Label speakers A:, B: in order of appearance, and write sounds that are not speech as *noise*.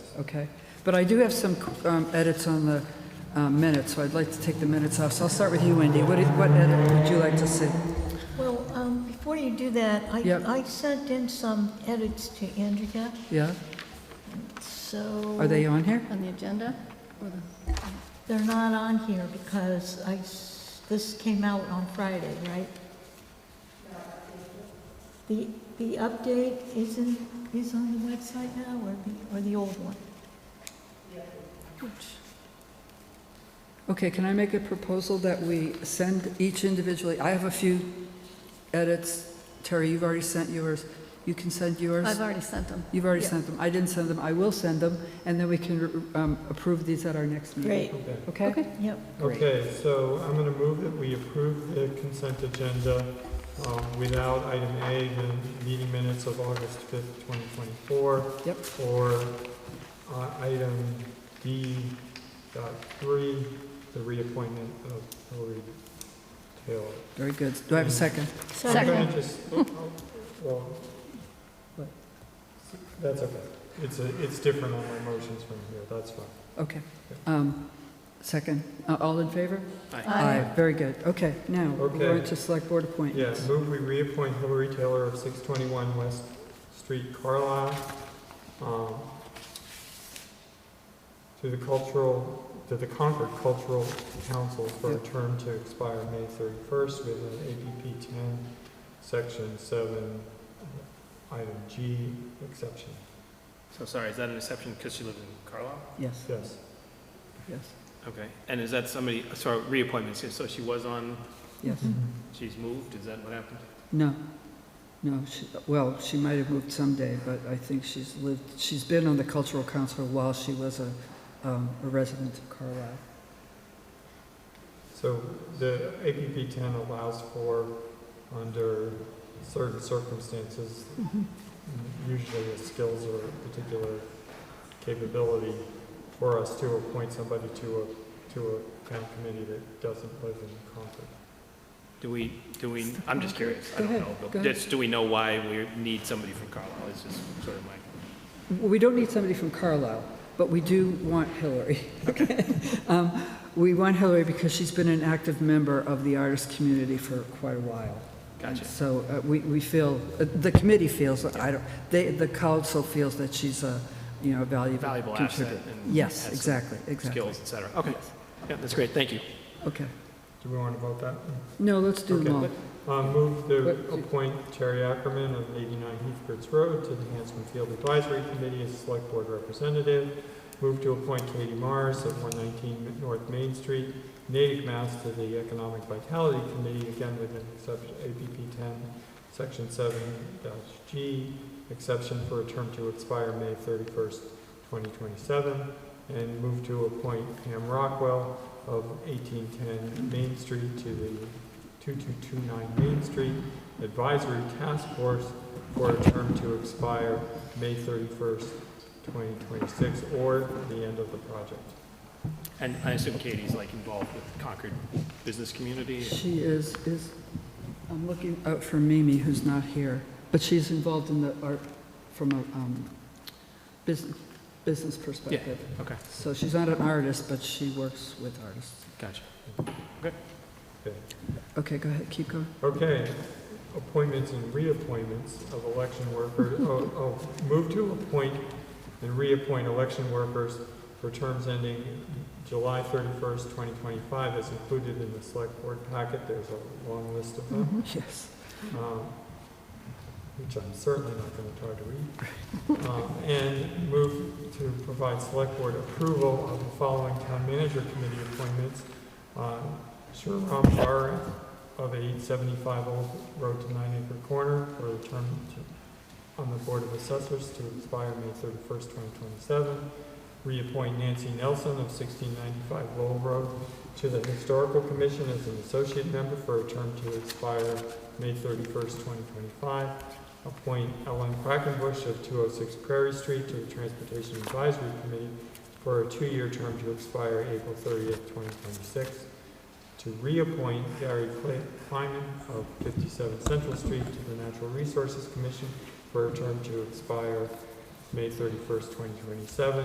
A: okay? But I do have some um, edits on the uh, minutes, so I'd like to take the minutes off. So I'll start with you, Wendy. What what edit would you like to see?
B: Well, um, before you do that, I,
A: Yep.
B: I sent in some edits to Andrea,
A: Yeah?
B: so.
A: Are they on here?
C: On the agenda? or the-
B: They're not on here because I, s- this came out on Friday, right? The, the update is in, is on the website now or the, or the old one?
A: Okay, can I make a proposal that we send each individually? I have a few edits. Terry, you've already sent yours. You can send yours.
C: I've already sent them.
A: You've already sent them. I didn't send them. I will send them, and then we can um, approve these at our next meeting.
B: Great,
D: Okay.
A: Okay?
B: yep.
A: Great.
D: Okay, so I'm going to move that we approve the consent agenda um, without item A, the meeting minutes of August 5th, 2024.
A: Yep.
D: Or uh, item D dot three, the reappointment of Hillary Taylor.
A: Very good. Do I have a second?
B: So
D: I'm
C: Second.
D: gonna just- *laughs* oh, oh, well,
A: What?
D: That's okay. It's, a- it's different on my motions from here, that's fine.
A: Okay. Um, Second. Uh, All in favor?
B: Aye.
A: Very good. Okay, now, we're
D: Okay.
A: into select board
D: Yeah,
A: appointments.
D: move we reappoint Hillary Taylor of 621 West Street, Carlisle, um, to the cultural, to the Concord Cultural Council for a
A: Yep.
D: term to expire May 31st within APP 10, Section 7, item G, exception.
E: So sorry, is that an exception because she lived in Carlisle?
A: Yes,
D: Yes.
A: yes,
E: Okay. And is that somebody, sorry, reappointments, so she was on,
A: yes.
E: she's moved, is that what happened?
A: No, no, she, well, she might have moved someday, but I think she's lived, she's been on the cultural council while she was a, um, a resident of Carlisle.
D: So the APP 10 allows for, under certain circumstances, usually a skills or a particular capability, for us to appoint somebody to a, to a town committee that doesn't live in Concord.
E: Do we, do we, I'm just curious, I
A: Go
E: don't
A: ahead,
E: know.
A: go
E: But
A: ahead.
E: just, do we know why we need somebody from Carlisle? It's just sort of my,
A: We don't need somebody from Carlisle, but we do want Hillary. *laughs* Um, We want Hillary because she's been an active member of the artist community for quite a while. And
E: gotcha.
A: So uh, we, we feel, uh, the committee feels, I don't, they, the council feels that she's a, you know, a valuable
E: Valuable asset
A: contributor.
E: and has
A: Yes,
E: some
A: exactly, exactly.
E: Skills, et cetera. Okay. Yeah, that's great, thank you.
A: Okay.
D: Do we want to vote that?
A: No, let's do them all.
D: Okay. Uh, Move to
A: What-
D: appoint Terry Ackerman of 89 Heathbridge Road to the Hanson Field Advisory Committee as Select Board Representative. Move to appoint Katie Mars of 119 North Main Street, Natick, Mass. to the Economic Vitality Committee, again with an exception, APP 10, Section 7-G, exception for a term to expire May 31st, 2027. And move to appoint Pam Rockwell of 1810 Main Street to the 2229 Main Street Advisory Task Force for a term to expire May 31st, 2026, or the end of the project.
E: And I assume Katie's like involved with Concord business community?
A: She is, is, I'm looking out for Mimi, who's not here, but she's involved in the art from a um, business, business perspective.
E: Okay,
A: So she's not an artist, but she works with artists.
E: gotcha.
D: Okay.
A: Okay, go ahead, keep going. *laughs*
D: Okay, appointments and reappointments of election workers, oh, oh, move to appoint and reappoint election workers for terms ending July 31st, 2025, as included in the Select Board packet. There's a long list of them.
A: Yes.
D: um, which I'm certainly not going to try to read, Um, and move to provide select board approval of the following town manager committee appointments. Um, Shriram Bar of 875 Old Road to Nine Acre Corner for the term to- on the Board of Assessors to expire May 31st, 2027. Reappoint Nancy Nelson of 1695 Lowell Road to the Historical Commission as an associate member for a term to expire May 31st, 2025. Appoint Ellen Quackenbush of 206 Prairie Street to the Transportation Advisory Committee for a two-year term to expire April 30th, 2026. To reappoint Gary Cle- Kleiman of 57 Central Street to the Natural Resources Commission for a term to expire May 31st, 2027.